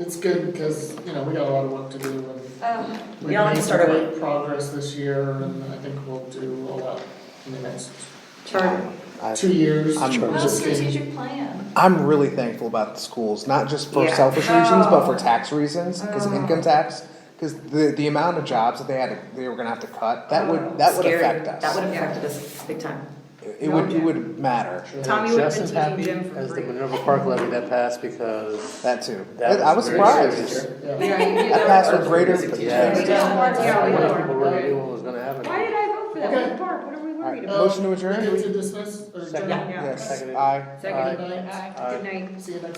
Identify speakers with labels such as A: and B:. A: it's good because, you know, we got a lot of work to do and
B: Oh,
A: we've
C: all
A: made some
C: started.
A: great progress this year and I think we'll do a lot in the next
C: Charter.
D: I-
A: two years.
D: Uh, I'm-
A: We're
B: well,
A: just getting-
B: strategic plan.
D: I'm really thankful about the schools, not just for
C: Yeah.
D: selfish reasons, but for
B: Oh.
D: tax reasons, because
B: Oh.
D: income tax, because the the amount of jobs that they had, to- they were gonna have to cut, that would that would
C: Oh, Scary.
D: affect us.
C: That would have affected us big time.
D: It- It would it would matter.
E: I'm
F: Tommy would have
E: just
F: been
E: as
F: teaching
E: happy
F: gym for
E: as the
F: free.
E: Minerva Park levy that passed because
D: That too.
E: That
D: I was
E: was very
D: surprised.
A: Yeah.
C: Yeah, you
D: That passed with greater.
E: Yeah.
B: We don't want to-
C: Yeah,
E: a
C: we
E: lot
C: don't.
E: of people really knew what was gonna happen.
F: Why did I vote for that
A: Okay.
F: one park? What are we worried
D: Alright,
F: about?
D: Motion to
A: Um, We
D: adjourn?
A: get to dismiss or
E: Second.
A: adjourn?
C: Yeah.
D: Yes,
E: Seconded.
D: aye.
A: Good
E: Seconded.
A: night.
E: Aye.
F: Good night.
A: See you next